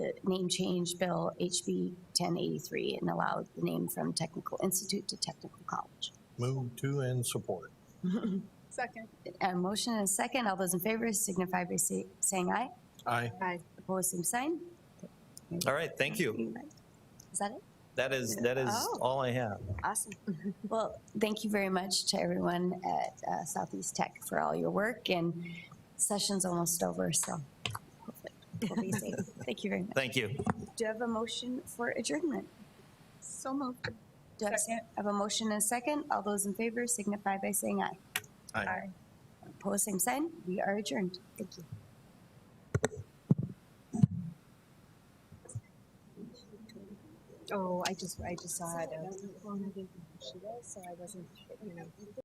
name change bill HB ten eighty-three and allow the name from Technical Institute to Technical College. Move to and support. Second. A motion and a second. All those in favor signify by say- saying aye. Aye. Aye. Opposed, same sign. All right, thank you. Is that it? That is, that is Oh. all I have. Awesome. Well, thank you very much to everyone at uh, Southeast Tech for all your work and session's almost over, so hopefully we'll be safe. Thank you very much. Thank you. Do you have a motion for adjournment? So moved. Do I have- Second. I have a motion and a second? All those in favor signify by saying aye. Aye. Opposed, same sign. We are adjourned. Thank you. Oh, I just, I just saw it. uh, So I wasn't, you know.